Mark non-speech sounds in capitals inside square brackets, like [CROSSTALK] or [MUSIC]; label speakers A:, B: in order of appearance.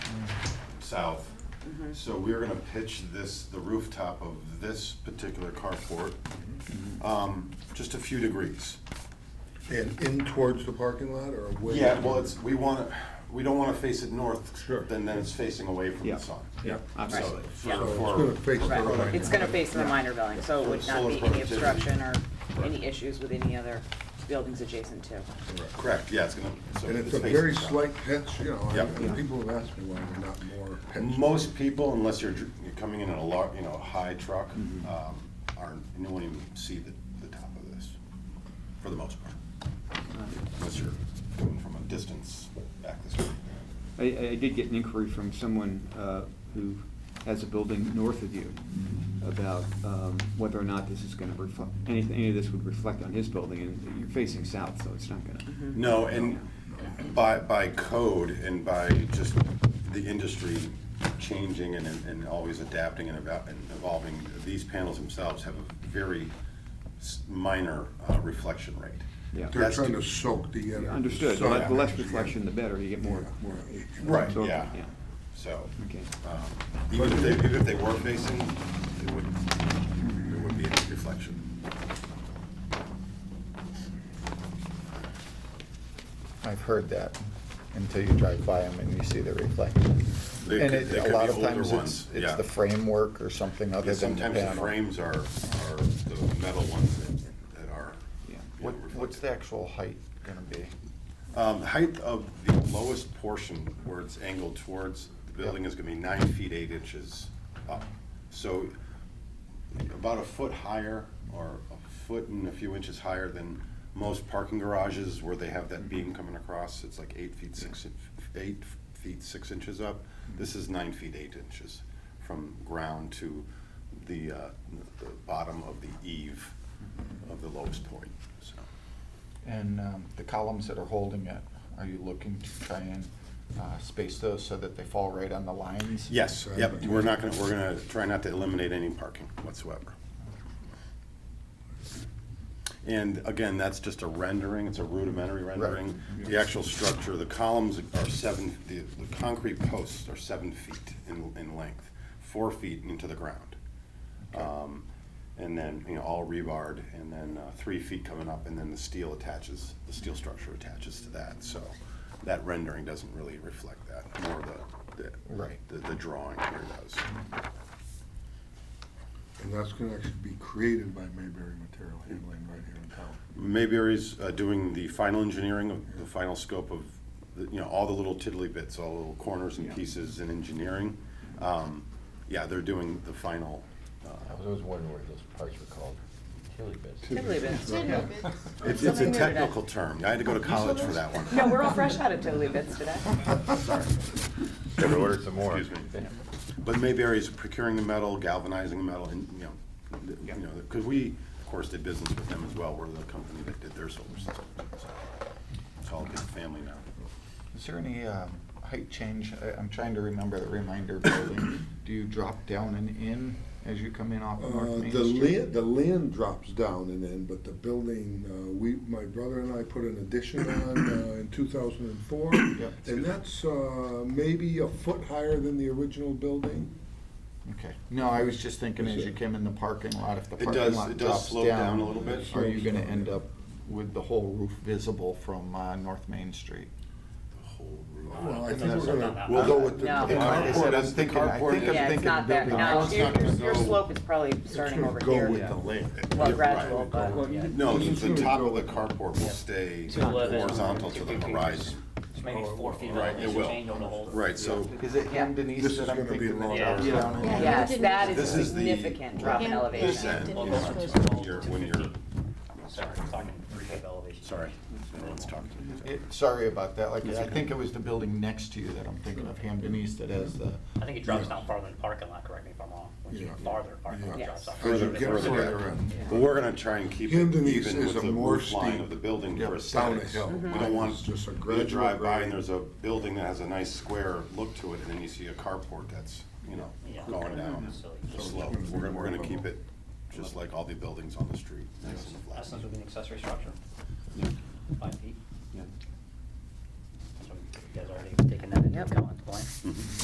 A: south.
B: Mm-hmm.
A: So we're gonna pitch this, the rooftop of this particular carport,
C: Mm-hmm.
A: um, just a few degrees.
C: And in towards the parking lot or away?
A: Yeah, well, it's, we wanna, we don't wanna face it north.
C: Sure.
A: Then, then it's facing away from
D: Yeah.
A: the sun.
C: Yeah.
A: So,
D: Absolutely.
A: for-
B: Yeah.
C: So it's
A: for-
C: gonna face the
A: for-
C: line.
B: Right, it's gonna face the minor building, so it would not be any obstruction or any issues with any other buildings adjacent to.
A: Correct, yeah, it's gonna. so
C: And it's a
A: facing
C: very
A: south.
C: slight pitch, you know,
A: Yep.
C: and- and people have asked me why they're not more pitched.
A: Most people, unless you're, dr- you're coming in in a lar, you know, high truck,
C: Mm-hmm.
A: um, aren't, you won't even see the, the top of this, for the most part. Unless you're coming from a distance back this way.
D: I, I did get an inquiry from someone uh, who has a building north of you about um, whether or not this is going to reflect, anything, any of this would reflect on his building, and you're facing south, so it's not going to.
A: No, and by, by code and by just the industry changing and, and always adapting and eva- and evolving, these panels themselves have a very s- minor uh, reflection rate.
D: Yeah.
C: They're
A: That's
C: trying
A: to-
C: to soak the energy.
D: Understood, the
C: soak
D: le- the less
C: energy in.
D: reflection, the better, you get more, more.
A: Right,
D: absorption,
A: yeah.
D: Yeah,
A: So.
D: okay.
A: Um, Even if they, even if they were facing, it would, it would be a reflection.
E: I've heard that until you drive by them and you see the reflection.
A: They
E: And
A: could-
E: it,
A: they could be
E: a lot of
A: older
E: times
A: ones,
E: it's, it's
A: yeah.
E: the framework or something other
A: Yeah,
E: than the
A: Sometimes the
E: panel.
A: frames are, are the metal ones that- that are.
D: Yeah.
A: you know,
E: What, what's the
A: reflective.
E: actual height gonna be?
A: Um, height of the lowest portion where it's angled towards the building is gonna be nine feet, eight inches up. So about a foot higher or a foot and a few inches higher than most parking garages where they have that beam coming across. It's like eight feet, six, in- eight feet, six inches up. This is nine feet, eight inches from ground to the, uh, the bottom of the eave of the lowest point, so.
E: And, um, the columns that are holding it, are you looking to try and, uh, space those so that they fall right on the lines?
A: Yes,
C: Sorry,
A: yep,
C: but-
A: we're not gonna, we're gonna try not to eliminate any parking whatsoever. And again, that's just a rendering, it's a rudimentary rendering. The actual structure, the columns are seven, the, the concrete posts are seven feet in, in length, four feet into the ground. Um, And then, you know, all rebarred, and then uh, three feet coming up, and then the steel attaches, the steel structure attaches to that, so that rendering doesn't really reflect that, more the, the.
E: Right.
A: The, the drawing here does.
C: And that's gonna actually be created by Mayberry Material Handling right here in town.
A: Mayberry's uh, doing the final engineering of the final scope of, the- you know, all the little tiddly bits, all the little corners and pieces in engineering. Um, Yeah, they're doing the final,
F: I was always wondering where those parts were called. Tilly bits.
B: Tiddly bits.
A: it's, it's a
B: Oh, Something new today.
A: technical term, I had to
B: [LAUGHS]
A: go to college for that one.
B: No, we're all fresh out of tiddly bits today.
F: Gotta order some more.
A: Excuse me. But Mayberry's procuring the metal, galvanizing the metal, and, you know, th- you know, because we, of course, did business with them as well. We're the company that did their solar system. so It's all a big family now.
E: Is there any, um, height change? I, I'm trying to remember the reminder building. Do you drop down and in as you come in off of
C: Uh,
E: North Main
C: The
E: Street?
C: land, the land drops down and then, but the building, uh, we, my brother and I put an addition on
D: [CLEARS THROAT]
C: uh, in two thousand and four. And that's uh, maybe a foot higher than the original building.
E: Okay, no, I was just thinking as you came in the parking lot, if the
A: It
E: parking
A: does-
E: lot
A: it does
E: drops
A: slope down a little bit.
E: Are you gonna end up with the whole roof visible from, uh, North Main Street?
C: Well, I think we're gonna,
A: We'll
C: go with the.
B: No.
A: The
E: Like I said,
A: carport
E: I'm
A: is, the
E: thinking- I
A: carport
E: think I'm
B: Yeah,
A: is,
B: it's not that,
E: building-
B: no,
A: It's
B: your,
A: not gonna
B: your- your
A: go-
B: slope is probably starting over
C: Go with
B: here.
C: the land.
A: Yeah,
B: Well,
A: right.
B: gradual, but.
A: no, the-
C: It's
A: the
C: gonna
A: top
C: go
A: of the
C: with-
A: carport will stay
G: Two eleven.
A: horizontal to the horizon.
G: It's maybe four feet of
A: Oh, Right, it will.
G: change on the whole.
A: Right, so
E: Is it him,
C: This
E: Denise,
C: is
E: that I'm
C: gonna be
E: thinking
C: long
E: that
G: hours.
E: drops down? and in?
B: Yes, that is
A: This
B: a
A: is the-
B: significant drop in
H: Yeah.
A: this
B: elevation.
A: end,
H: Yeah.
A: you
G: Well,
A: know,
G: that's
A: it's-
G: close.
A: you're- when you're,
G: Sorry, I'm talking three feet of elevation.
A: sorry, everyone's talking.
E: It- Sorry about that, like, I think it was the building next to you that I'm thinking of, Ham Denise, that has the,
G: I think it drops down farther than the parking lot, correct me if I'm wrong. When you
C: Yeah.
G: get farther, parking lot
C: Yeah.
G: drops off.
C: As you get
A: Further
C: further
A: back.
C: in.
A: But we're gonna try and keep it even
C: Camden East
A: with
C: is a
A: the
C: more
A: roof line
C: steep-
A: of the building
C: Yep,
A: for
C: down a
A: aesthetics. We
C: hill.
A: don't want
C: It's just a
A: you to
C: gradual
A: drive by and
C: grade.
A: there's a building that has a nice square look to it, and then you see a carport that's, you know,
G: Yeah.
A: going down
G: So
A: the
G: it's-
A: slope. We're gonna, we're gonna keep it just like all the buildings on the street. nice and flat.
G: That's not an accessory structure. Five feet.
D: Yeah.
G: So you guys already taken that into
B: Yep.
G: account at the point.